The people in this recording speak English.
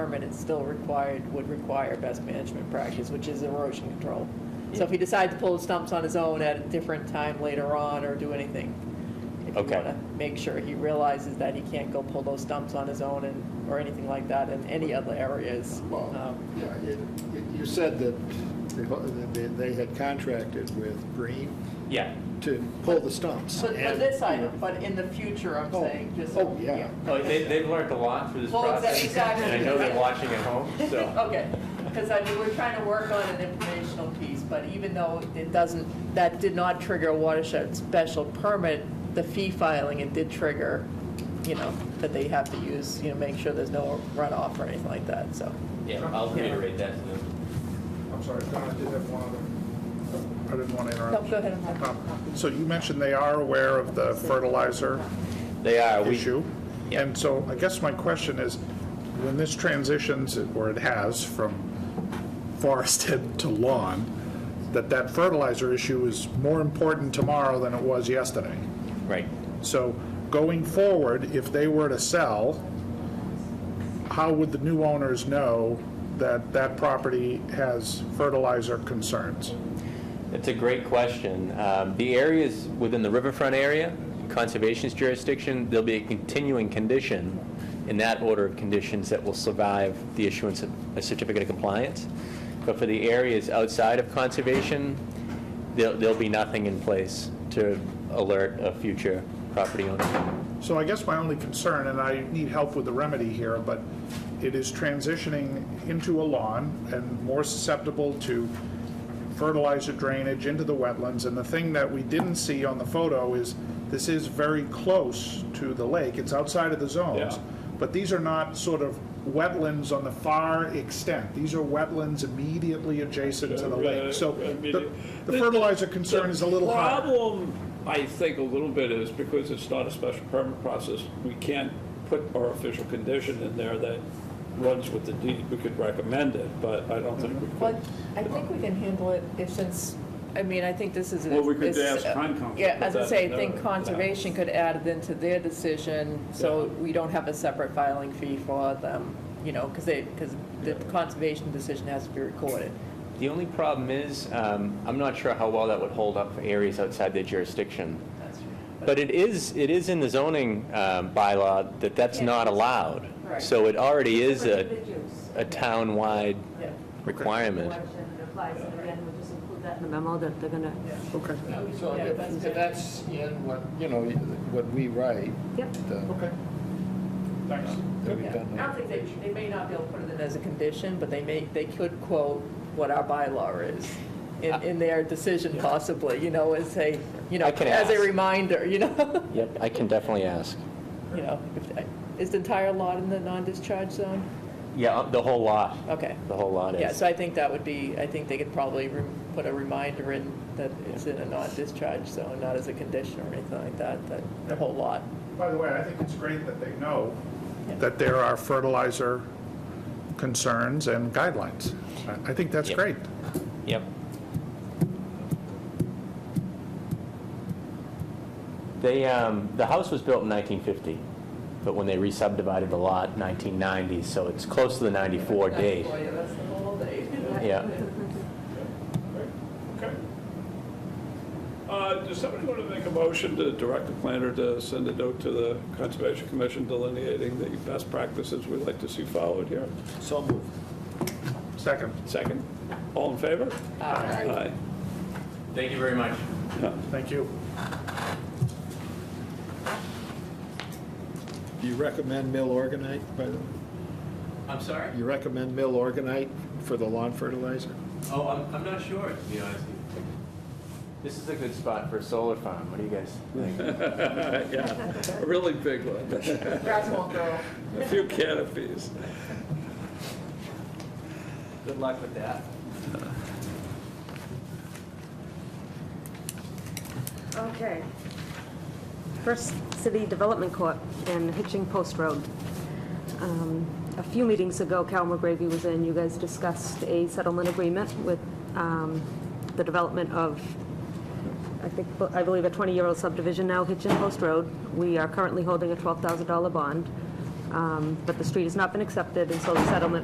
permit, it's still required, would require best management practice, which is erosion control. So if he decides to pull his stumps on his own at a different time later on or do anything, if you Okay. want to make sure he realizes that he can't go pull those stumps on his own and, or anything like that in any other areas. Well, Um, yeah, it- it- you said that they- they- they had contracted with Green Yeah. to pull the stumps. But but and- this item, but in the future, I'm Oh, saying, just. oh, yeah. Oh, they, they've learned a lot through this Well, exa- process. exactly. And I know they're watching at home, so. Okay, because I mean, we're trying to work on an informational piece, but even though it doesn't, that did not trigger a watershed special permit, the fee filing, it did trigger, you know, that they have to use, you know, make sure there's no runoff or anything like that, so. Yeah, I'll reiterate that to them. I'm sorry, Don, I did have one other, I didn't want to No, interrupt. go ahead, I'm happy. Um, So you mentioned they are aware of the fertilizer They are, we, issue. Yeah. And so I guess my question is, when this transitions, or it has, from forested to lawn, that that fertilizer issue is more important tomorrow than it was yesterday. right. So going forward, if they were to sell, how would the new owners know that that property has fertilizer concerns? It's a great question. Um, The areas within the riverfront area, conservation's jurisdiction, there'll be a continuing condition in that order of conditions that will survive the issuance of a certificate of compliance. But for the areas outside of conservation, there'll, there'll be nothing in place to alert a future property owner. So I guess my only concern, and I need help with the remedy here, but it is transitioning into a lawn and more susceptible to fertilizer drainage into the wetlands. And the thing that we didn't see on the photo is this is very close to the lake. It's outside of the zones. Yeah. But these are not sort of wetlands on the far extent. These are wetlands immediately adjacent to the lake. So the the fertilizer concern is a little higher. The problem, I think, a little bit is because it's not a special permit process, we can't put our official condition in there that runs with the deed. We could recommend it, but I don't think we But could. I think we can handle it if since, I mean, I think this is. Well, we could is- ask Concom to Yeah, put as I that say, in I think there. conservation could add it into their decision, so Yeah. we don't have a separate filing fee for them, you know, because they, because the conservation decision has to be recorded. The only problem is, um, I'm not sure how well that would hold up for areas outside their jurisdiction. But it is, it is in the zoning um, bylaw that that's not allowed. Right. So it already is a, Prohibited use. a town-wide Yeah. requirement. Election that applies, and again, we'll just include that in the memo that they're gonna, Okay. So Yeah, if that's if that's in what, you know, what we write, yep. the- Okay. Thanks. that we've Yeah. done I that. don't think they, they may not be able to put it in as a condition, but they may, they could quote what our bylaw is in, in their decision possibly, you know, as a, you know, I can as a ask. reminder, you know? Yep, I can definitely ask. You know, if- uh, is the entire lot in the non-discharge zone? Yeah, uh, the whole lot, Okay. the whole lot Yeah, is. so I think that would be, I think they could probably re- put a reminder in that it's in a non-discharge zone, not as a condition or anything like that, that the whole lot. By the way, I think it's great that they know Yeah. that there are fertilizer concerns and guidelines. I- I think that's Yep. great. Yep. They, um, the house was built in 1950, but when they re-subdivided the lot, 1990, so it's close to the 94 date. Boy, that's the whole day. Yeah. Okay. Uh, Does somebody want to make a motion to direct the planner to send a note to the Conservation Commission delineating the best practices we'd like to see followed here? So moved. Second, Second? All in favor? Aye. Thank you very much. Yeah. thank you. Do you recommend mill organite, by the way? I'm sorry? You recommend mill organite for the lawn fertilizer? Oh, I'm, I'm not sure, to be honest with you. This is a good spot for a solar farm. What do you guys think? Yeah, a really big one. Grass won't grow. A few canopies. Good luck with that. Okay. First City Development Court in Hitching Post Road. Um, A few meetings ago, Cal McGravy was in, you guys discussed a settlement agreement with um, the development of, I think, I believe a 20-year-old subdivision now, Hitchin Post Road. We are currently holding a $12,000 bond. Um, But the street has not been accepted, and so the settlement